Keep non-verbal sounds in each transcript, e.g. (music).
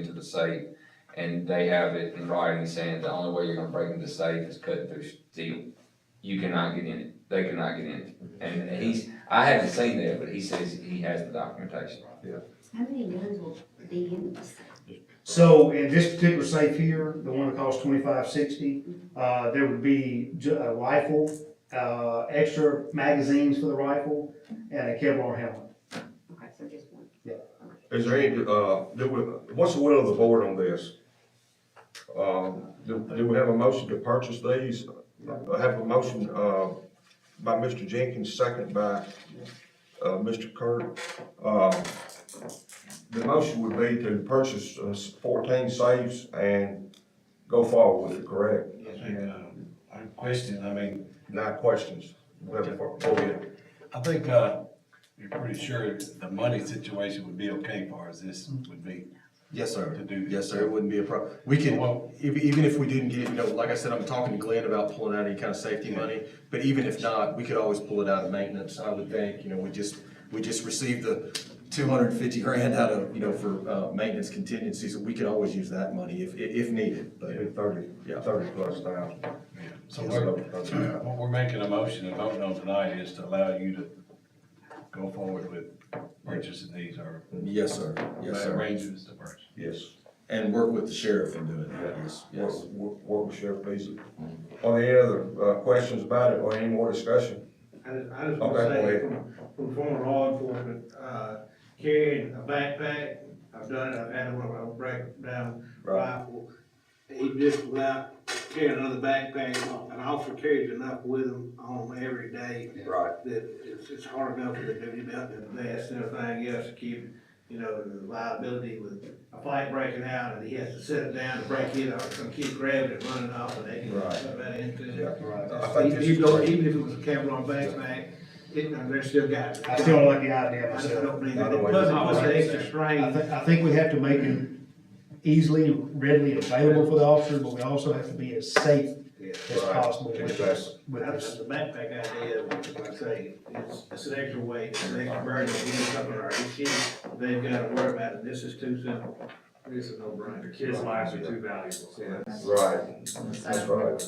the safe, and they have it in writing saying the only way you're gonna break into the safe is cutting through steel. You cannot get in it, they cannot get in it, and he's, I haven't seen that, but he says he has the documentation. How many guns will be in this? So in this particular safe here, the one that costs twenty-five sixty, uh, there would be ju- a rifle, uh, extra magazines for the rifle, and a Kevlar helmet. Okay, so just one. Is there any, uh, do we, what's the will of the board on this? Um, do, do we have a motion to purchase these? I Have a motion, uh, by Mr. Jenkins, second by, uh, Mr. Kirk. Uh, The motion would be to purchase uh, fourteen safes and go forward with it, correct? I think, um, I question, I mean, Nine questions. We have to- Go ahead. I think, uh, you're pretty sure the money situation would be okay for us, this would be. Yes, sir. To do this. Yes, sir, it wouldn't be a problem. We can, Well- ev- even if we didn't get, you know, like I said, I'm talking to Glenn about pulling out any kind of safety money, but even if not, we could always pull it out of maintenance, I would think, you know, we just, we just received the two hundred and fifty grand out of, you know, for, uh, maintenance contingency, so we could always use that money if, i- if needed, but. Maybe Thirty, Yeah. thirty plus thousand. So we're, what we're making a motion and voting on tonight is to allow you to go forward with purchasing these or Yes, sir, yes, sir, arrangements to purchase. Yes. and work with the sheriff in doing that, yes, Work, yes. work work with Sheriff Beasley. Are there any other, uh, questions about it or any more discussion? I just, I Okay, just wanna go say, ahead. from, from former law enforcement, uh, carrying a backpack, I've done it, I've had one, I'll break down Right. rifle. He just without carrying another backpack, an officer carries enough with him on him every day. Right. That it's, it's hard enough for the duty belt and the vest and everything else to keep, you know, the liability with a fight breaking out and he has to sit it down to break it or some kid grabs it running off and they can Right. put that into it. Uh, Yeah. I think Even this if you don't- is- even if it was a Kevlar backpack, it, they're still got it. I still don't like the idea I just don't myself. believe it. By the Plus, way, it was an extra I strain. think, I think we have to make it easily, readily available for the officers, but we also have to be as safe Yeah. as Right. possible with this. Exactly. With That's this. the backpack idea, like I say, it's, it's an extra weight, it's an extra burden, it's something or it's kids, they've got to worry about it, this is too simple. This is no brainer. Kids' lives are too valuable. Right, that's right,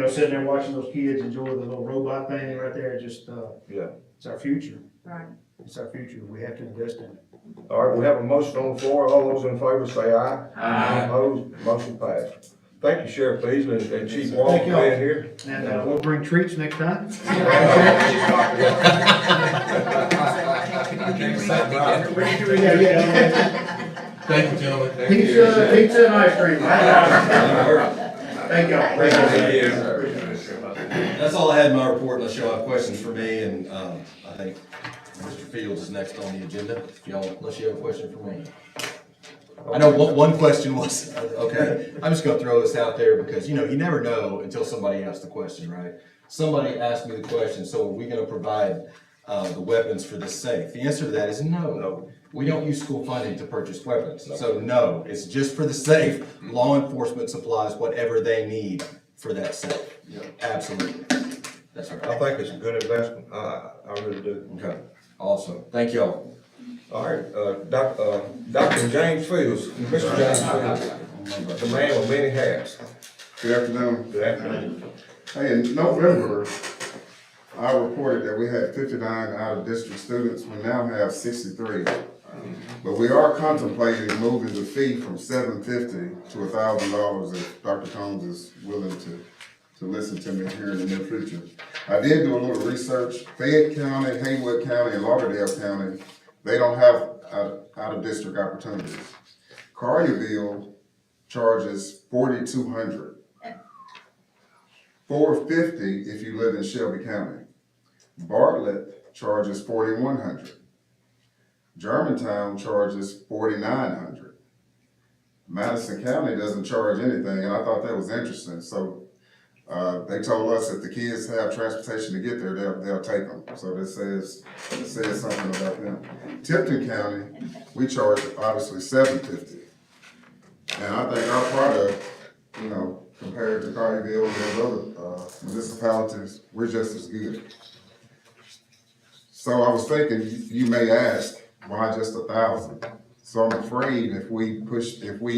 (laughs) (laughs) know, sitting there watching those kids enjoy the little robot thing right there, just, uh, yeah. it's our future. Right. It's our future. We have to invest in it. All right, we have a motion on the floor. All those in favor say aye. Aye. Opposed, motion passed. Thank you, Sheriff Beasley and- and Chief Walker Thank being y'all. here. And, uh, we'll bring treats next time. (laughs) Yeah, yeah. Thank you, gentlemen. Pizza, pizza and ice cream. Thank y'all. Thank you. That's all I had in my report, unless y'all have questions for me, and, um, I think Mr. Fields is next on the agenda, if y'all, unless you have a question for me. I know one, one question was, okay, I'm just gonna throw this out there, because, you know, you never know until somebody asks the question, right? Somebody asked me the question, so are we gonna provide, uh, the weapons for the safe? The answer to that is no. We don't use school funding to purchase weapons, so no, it's just for the safe, law enforcement supplies whatever they need for that safe. Absolutely, that's I right, think it's a good investment. I, I- I really do. okay, awesome, thank y'all. All right, uh, Doc, uh, Dr. James Fields, Mr. James Fields, the man with many hats. Good afternoon. Good afternoon. Hey, in November, I reported that we had fifty-nine out-of-district students. We now have sixty-three. But we are contemplating moving the fee from seven fifty to thousand dollars if Dr. Combs is willing to, to listen to me here in the near future. I did do a little research. Fayette County, Haywood County, and Lauderdale County, they don't have out, out-of-district opportunities. Carneyville charges forty-two hundred four fifty if you live in Shelby County. Bartlett charges forty-one hundred. Germantown charges forty-nine hundred. Madison County doesn't charge anything, and I thought that was interesting, so, uh, they told us if the kids have transportation to get there, they'll, they'll take them, so this says, it says something about them. Tipton County, we charge obviously seven fifty. And I think our product, you know, compared to Carterville and those other, uh, municipalities, we're just as good. So I was thinking, you you may ask, why just a thousand? So I'm afraid if we push, if we